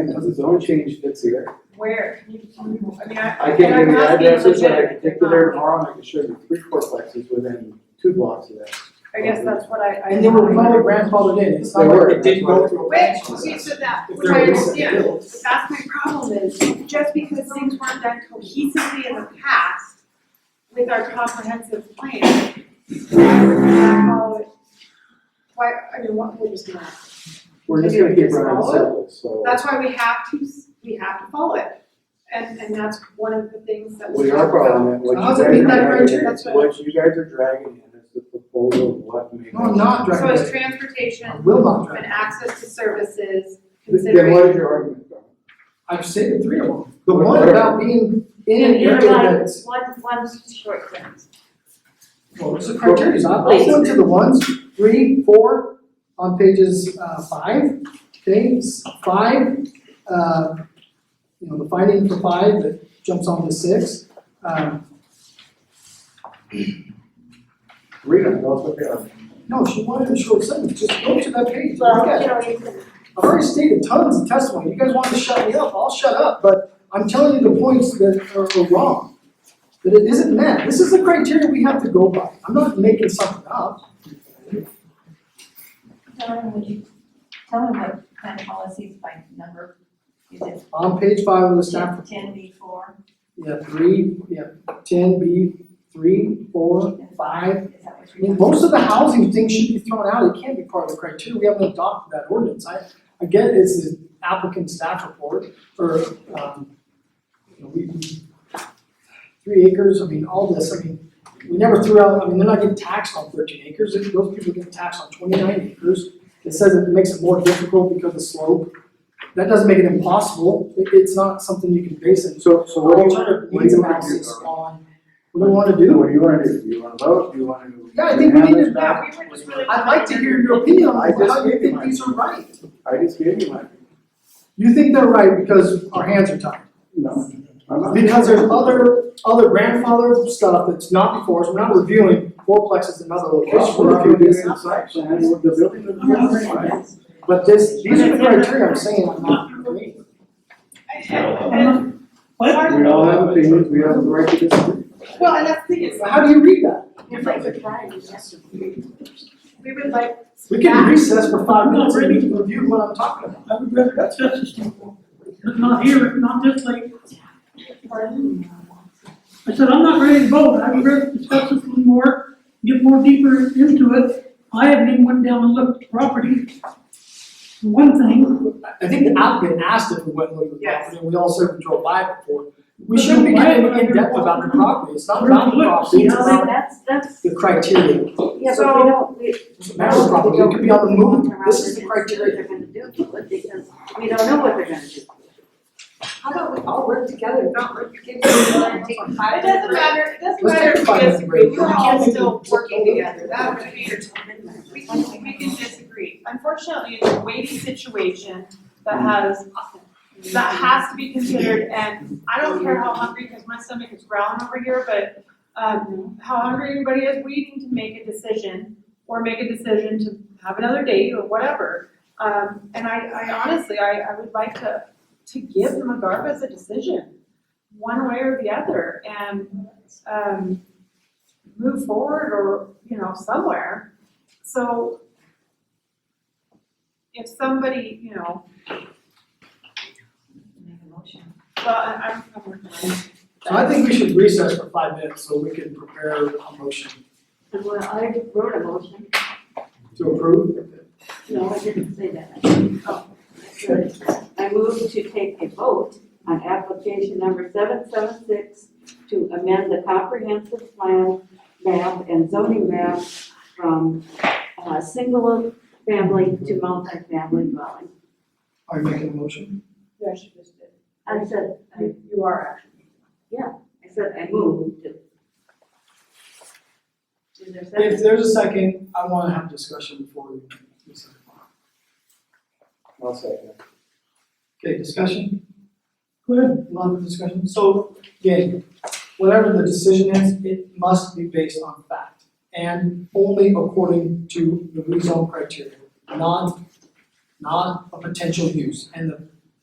And that's a zone change that's here. Where, can you, can you, I mean, I. I can't give I'm you asking addresses, but I can legitimately, get you there Bob. tomorrow and I can show you three fourplexes within two blocks of that. I guess that's what I, I. And they were probably grandfathered in, it's not They were, like it didn't go that's through. a Which, process. see, so that, If which they're I recently understand, built. but that's my problem is, just because things weren't done cohesively in the past with our comprehensive plan, I call it- why, I mean, what, we're just gonna, We're just Maybe gonna we keep just running follow it? circles, so. that's why we have to, s- we have to follow it. And, and that's one of the things that we We talked are about. following it, what How's you it guys mean that are we're dragging, just- what you guys are dragging in is the proposal of what may. No, I'm not So dragging it's it, transportation I will not and drag it. access to services, Then what is considering. your argument, Don? I've stated three of them. The one Whatever. about being in an You're area right. that's, One, one's short terms. well, it's the criteria, I'll go into the ones, three, four, on pages, uh, five, things, five, uh, you know, the finding for five that jumps on to six. Um, Read them, tell us what they are. no, she wanted a short sentence, just go to that page, look at it. Well, you know, you can, I've already stated tons of testimony, you guys want to shut me up, I'll shut up, but I'm telling you the points that are, are wrong. That it isn't met, this is the criteria we have to go by, I'm not making something up. tell them what you, tell them what kind of policies by number, is it On page five of the staff, ten B four? yeah, three, yeah, ten B, three, four, five. Is that what I you're? mean, most of the housing things should be thrown out, it can't be part of the criteria, we haven't adopted that ordinance, I, again, it's the applicant staff report, or, um, you know, we, we- three acres, I mean, all this, I mean, we never threw out, I mean, they're not getting taxed on thirteen acres, If those people get taxed on twenty-nine acres. It says it makes it more difficult because of slope, that doesn't make it impossible, it, it's not something you can base it. So, so what do you wanna, Alternative what do needs you wanna do, analysis Don? on, what do we wanna do? What do you wanna do, do you wanna vote, do you wanna? Yeah, I think we have need this to- back? yeah, we were just really- I'd like to hear your opinion I on just how you gave think mine. these are right. I just gave you mine, You think they're right because our hands are tied. no, I'm not. Because there's other, other grandfather stuff that's not before us, we're not reviewing fourplexes and other locations, Well, we're if you reviewing do this. it inside, then the building doesn't have to be right. But this, these are the criteria I'm saying I'm not agreeing. And, What? We all have opinions, we have the right to disagree. well, and that's the thing is, So How do you read that? You're right, the variety, yes. we would like We can recess for five minutes and we can review what I'm talking about. I would rather have justice people, but not here, not this late. I said, I'm not ready to vote, I would rather discuss this a little more, get more deeper into it. I haven't even went down and looked at the property. For One thing, I think the applicant asked if we went with the Yes. property, and we all said we drove by it before. We But shouldn't be why- getting in depth about the property, it's not We're about the look, property, it's see how No, about that's, that's, the criteria. yeah, but we don't, we. It's a matter of property, it could be on the move, this is the criteria. They're gonna do, to it because we don't know what they're gonna do. How about we all work together, not work against each other and take five It doesn't matter, it doesn't Let's matter take if five we minutes disagree, break. we're We all can't make still it- working together, that would be, we can, we can disagree. Unfortunately, it's a weighty situation that has, that has to be considered, and I don't care how hungry, because my stomach is growling over here, but, um, how hungry everybody is, we need to make a decision, or make a decision to have another date, or whatever. Um, and I, I honestly, I, I would like to, to give McGarvis a decision, one way or the other, and um, move forward or, you know, somewhere. So if somebody, you know, Make a motion. well, I, I'm, I'm working on it. So I think we should recess for five minutes so we can prepare a motion And well, I wrote a motion, to approve. no, I didn't say that. Oh, I moved to take a vote on application number seven seven six to amend the comprehensive plan map and zoning map from, uh, single family to multifamily dwelling. Are you making a motion? Yeah, she just did. I said, I, You- You are actually. I said I moved to. Is there a second? If there's a second, I want to have a discussion before we. recess. I'll second. Okay, discussion, go ahead, a lot of discussion. So again, whatever the decision is, it must be based on fact and only according to the rezone criteria, not, not a potential use. And the